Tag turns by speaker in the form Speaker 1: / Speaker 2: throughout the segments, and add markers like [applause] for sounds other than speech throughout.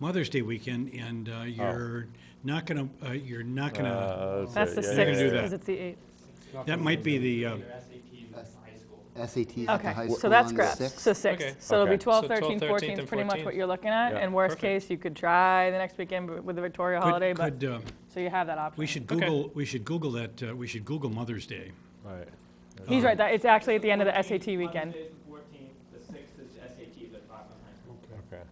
Speaker 1: Mother's Day weekend, and
Speaker 2: Oh.
Speaker 1: uh, you're not gonna, uh, you're not gonna,
Speaker 2: Uh,
Speaker 3: That's the
Speaker 2: yeah,
Speaker 1: sixth.
Speaker 2: yeah,
Speaker 3: sixth,
Speaker 1: do that.
Speaker 3: because it's the eighth.
Speaker 1: that might be the, uh,
Speaker 4: SATs at the high
Speaker 3: Okay,
Speaker 4: school
Speaker 3: so that's
Speaker 4: on the
Speaker 3: correct. So
Speaker 4: 6th.
Speaker 5: Okay.
Speaker 3: six. So it'll be
Speaker 2: Okay.
Speaker 3: 12,
Speaker 5: So
Speaker 3: 13,
Speaker 5: 12,
Speaker 3: 14 is
Speaker 5: and
Speaker 3: pretty much
Speaker 5: 14.
Speaker 3: what you're looking at.
Speaker 2: Yeah,
Speaker 3: And worst
Speaker 5: perfect.
Speaker 3: case, you could try the next weekend b- with the Victoria holiday,
Speaker 1: could,
Speaker 3: but,
Speaker 1: could, uh,
Speaker 3: so you have that option.
Speaker 1: we should Google, we should Google that, uh, we should Google Mother's Day.
Speaker 2: Right.
Speaker 3: He's right, that, it's actually at the end of the SAT weekend.
Speaker 5: Monday, 14th, the sixth is SAT, the five on high school.
Speaker 2: Okay. Oh,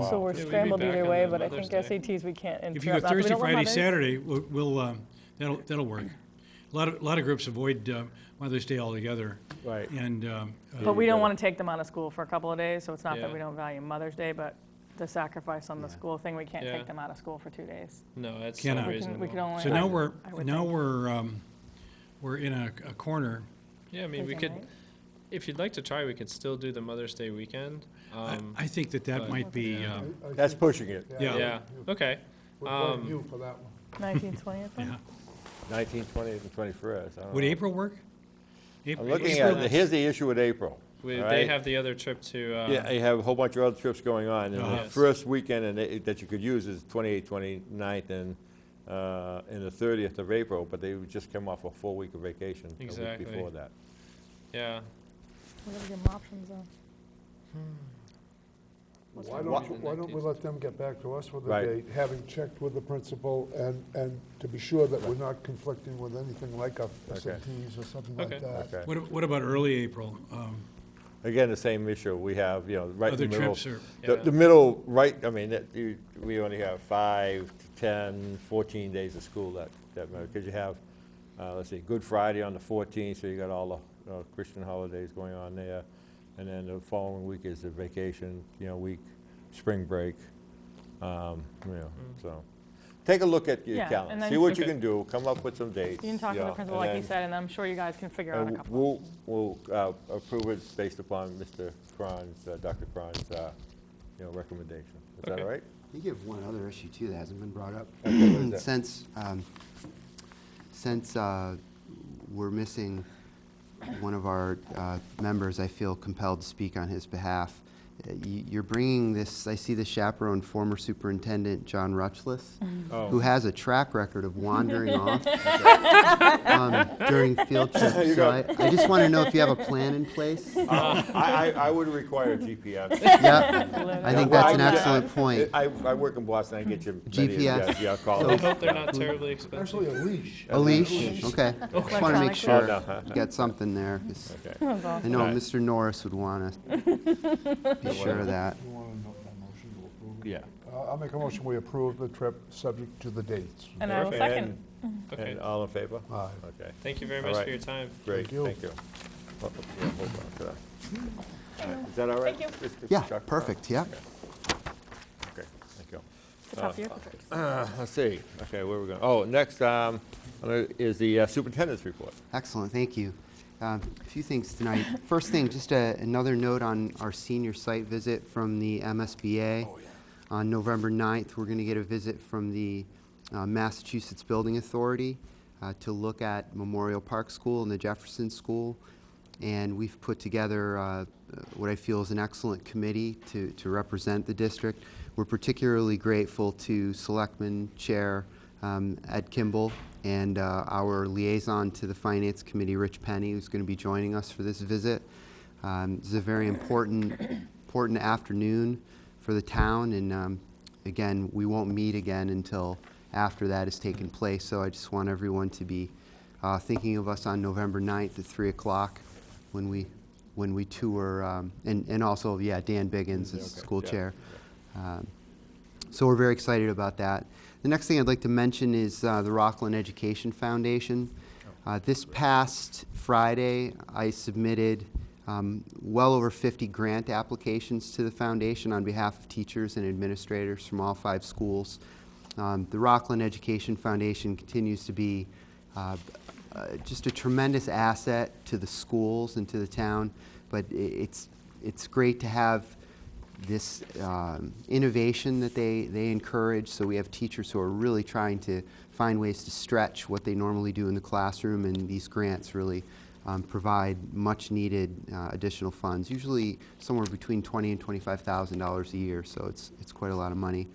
Speaker 4: Oh,
Speaker 1: So,
Speaker 3: So we're
Speaker 5: Yeah, we'd be
Speaker 3: scrambled
Speaker 5: back
Speaker 3: either
Speaker 5: on
Speaker 3: way,
Speaker 5: the
Speaker 3: but I
Speaker 5: Mother's
Speaker 3: think
Speaker 5: Day.
Speaker 3: SATs we can't
Speaker 1: if you go
Speaker 3: interrupt. Not that we
Speaker 1: Thursday,
Speaker 3: don't want
Speaker 1: Friday,
Speaker 3: Mother's-
Speaker 1: Saturday, we'll- we'll, uh, that'll, that'll work. A lot of, a lot of groups avoid uh, Mother's Day altogether,
Speaker 2: Right.
Speaker 1: and, um, uh,
Speaker 3: But we don't
Speaker 2: Yeah.
Speaker 3: want to take them out of school for a couple of days, so it's not that
Speaker 5: Yeah.
Speaker 3: we don't value Mother's Day, but the sacrifice on the school thing, we can't
Speaker 5: Yeah.
Speaker 3: take them out of school for two days.
Speaker 5: No, that's
Speaker 1: Cannot.
Speaker 5: not
Speaker 1: We
Speaker 3: We can-
Speaker 5: reasonable.
Speaker 3: We could only.
Speaker 1: so now
Speaker 3: I-
Speaker 1: we're,
Speaker 3: I would
Speaker 1: now
Speaker 3: think.
Speaker 1: we're, um, we're in a a corner.
Speaker 5: Yeah, I mean, we
Speaker 3: Thursday
Speaker 5: could,
Speaker 3: night.
Speaker 5: if you'd like to try, we could still do the Mother's Day weekend.
Speaker 1: I-
Speaker 5: Um,
Speaker 1: I think that that
Speaker 5: but-
Speaker 1: might be,
Speaker 5: Yeah.
Speaker 1: um,
Speaker 2: That's pushing it.
Speaker 1: Yeah.
Speaker 5: Yeah, okay.
Speaker 6: Would blame
Speaker 5: Um,
Speaker 6: you for that one.
Speaker 3: 19th, 20th
Speaker 1: [laughs]
Speaker 3: then?
Speaker 1: yeah.
Speaker 2: 19th, 20th, and 21st. I don't
Speaker 1: Would
Speaker 2: know.
Speaker 1: April work?
Speaker 2: I'm
Speaker 1: April-
Speaker 2: looking
Speaker 1: April-
Speaker 2: at, here's the issue with April.
Speaker 5: We,
Speaker 2: all
Speaker 5: they
Speaker 2: right?
Speaker 5: have the other trip to, uh, Oh,
Speaker 2: Yeah, they have a whole bunch of other trips going on, and
Speaker 1: Uh-huh.
Speaker 2: the
Speaker 5: Yes.
Speaker 2: first weekend in it- that you could use is 28th, 29th, and, uh, and the 30th of April, but they would just come off a full week of vacation a week
Speaker 5: Exactly.
Speaker 2: before that.
Speaker 5: yeah.
Speaker 3: We're gonna give them options though.
Speaker 6: Why don't, you- why don't we let them get back to us with a
Speaker 2: Right.
Speaker 6: date, having checked with the principal and, and to be sure that we're not conflicting with anything like a SATs or something
Speaker 5: Okay.
Speaker 6: like that.
Speaker 2: Okay.
Speaker 1: What ab- What about early April? Um,
Speaker 2: Again, the same issue, we have, you know, right in the
Speaker 1: Other
Speaker 2: middle.
Speaker 1: trips are-
Speaker 2: The,
Speaker 5: Yeah.
Speaker 2: the middle, right, I mean, that, you, we only have five, to 10, 14 days of school that, that, because you have, uh, let's see, Good Friday on the 14th, so you got all the uh, Christian holidays going on there. And then the following week is the vacation, you know, week, spring break, um, you know, so. Take a look at your
Speaker 3: Yeah, and
Speaker 2: calendar,
Speaker 3: then-
Speaker 2: see what you
Speaker 5: Okay.
Speaker 2: can do, come up with some dates.
Speaker 3: You can talk to
Speaker 2: yeah,
Speaker 3: the
Speaker 2: and
Speaker 3: principal, like you
Speaker 2: then-
Speaker 3: said, and I'm sure you guys can figure out a
Speaker 2: and
Speaker 3: couple.
Speaker 2: we'll, we'll uh, approve it based upon Mr. Cron's, uh, Dr. Cron's, uh, you know, recommendation. Is that
Speaker 5: Okay.
Speaker 2: all right?
Speaker 4: You give one other issue too that hasn't been brought up.
Speaker 2: Okay, what is that?
Speaker 4: Since, um, since uh, we're missing one of our uh, members, I feel compelled to speak on his behalf. Uh, you- You're bringing this, I see the chaperone, former superintendent John Rutschlis,
Speaker 3: Mm-hmm.
Speaker 5: Oh.
Speaker 4: who has a track record of
Speaker 3: [laughs]
Speaker 4: wandering off um, during field trips.
Speaker 2: You
Speaker 4: So
Speaker 2: go.
Speaker 4: I I just want to know if you have a plan in
Speaker 2: [laughs]
Speaker 4: place.
Speaker 2: Uh, I, I, I would require GPS.
Speaker 4: [laughs] Yeah, I think
Speaker 2: Well,
Speaker 4: that's an
Speaker 2: I- I-
Speaker 4: excellent point.
Speaker 2: I, I work in Boston, I get your. many of the- uh,
Speaker 4: GPS.
Speaker 2: Yeah,
Speaker 4: So-
Speaker 2: call.
Speaker 5: I hope they're
Speaker 2: [laughs]
Speaker 5: not terribly expensive.
Speaker 6: Actually, a leash.
Speaker 4: A leash, okay. Just want to make
Speaker 3: Electronic
Speaker 4: sure
Speaker 2: leash. Oh, no.
Speaker 4: you got something there, 'cause
Speaker 5: [laughs]
Speaker 2: Okay.
Speaker 4: I know
Speaker 2: Alright.
Speaker 4: Mr. Norris would want to be sure of that.
Speaker 6: You want a no- a motion to approve? it?
Speaker 2: Yeah.
Speaker 6: Uh, I'll make a motion, we approve the trip, subject to the dates.
Speaker 3: And I will
Speaker 2: Perfect.
Speaker 3: second.
Speaker 2: And-
Speaker 5: Okay.
Speaker 2: And all in favor?
Speaker 6: Aye.
Speaker 2: Okay,
Speaker 5: Thank you very
Speaker 2: All
Speaker 5: much
Speaker 2: right.
Speaker 5: for your time.
Speaker 2: great,
Speaker 6: you.
Speaker 2: thank you. Oh, yeah, hold on to that. All right, Is that all right?
Speaker 3: Thank
Speaker 2: Just- just
Speaker 4: Yeah,
Speaker 2: Dr. Cron?
Speaker 4: perfect, yeah.
Speaker 2: Okay, thank you.
Speaker 3: It's off your contract.
Speaker 2: Uh, Let's see, okay, where we going? Oh, next um, uh, is the uh, superintendent's report.
Speaker 4: Excellent, thank you. Um, A few things tonight. First thing, just a- another note on our senior site visit from the MSBA. On November 9th, we're going to get a visit from the uh, Massachusetts Building Authority uh, to look at Memorial Park School and the Jefferson School. And we've put together uh, what I feel is an excellent committee to to represent the district. We're particularly grateful to Selectman Chair um, Ed Kimball and uh, our liaison to the Finance Committee, Rich Penny, who's going to be joining us for this visit. Um, This is a very important, important afternoon for the town, and um, again, we won't meet again until after that has taken place, so I just want everyone to be uh, thinking of us on November 9th at 3 o'clock when we, when we tour, um, and and also, yeah, Dan Biggins is
Speaker 2: Okay,
Speaker 4: school
Speaker 2: yeah.
Speaker 4: chair. Um, so we're very excited about that. The next thing I'd like to mention is uh, the Rockland Education Foundation. Uh, This past Friday, I submitted um, well over 50 grant applications to the foundation on behalf of teachers and administrators from all five schools. Um, The Rockland Education Foundation continues to be uh, uh, just a tremendous asset to the schools and to the town, but i- it's, it's great to have this um, innovation that they, they encourage. So we have teachers who are really trying to find ways to stretch what they normally do in the classroom, and these grants really um, provide much-needed uh, additional funds, usually somewhere between twenty and $25,000 a year, so it's, it's quite a lot of money.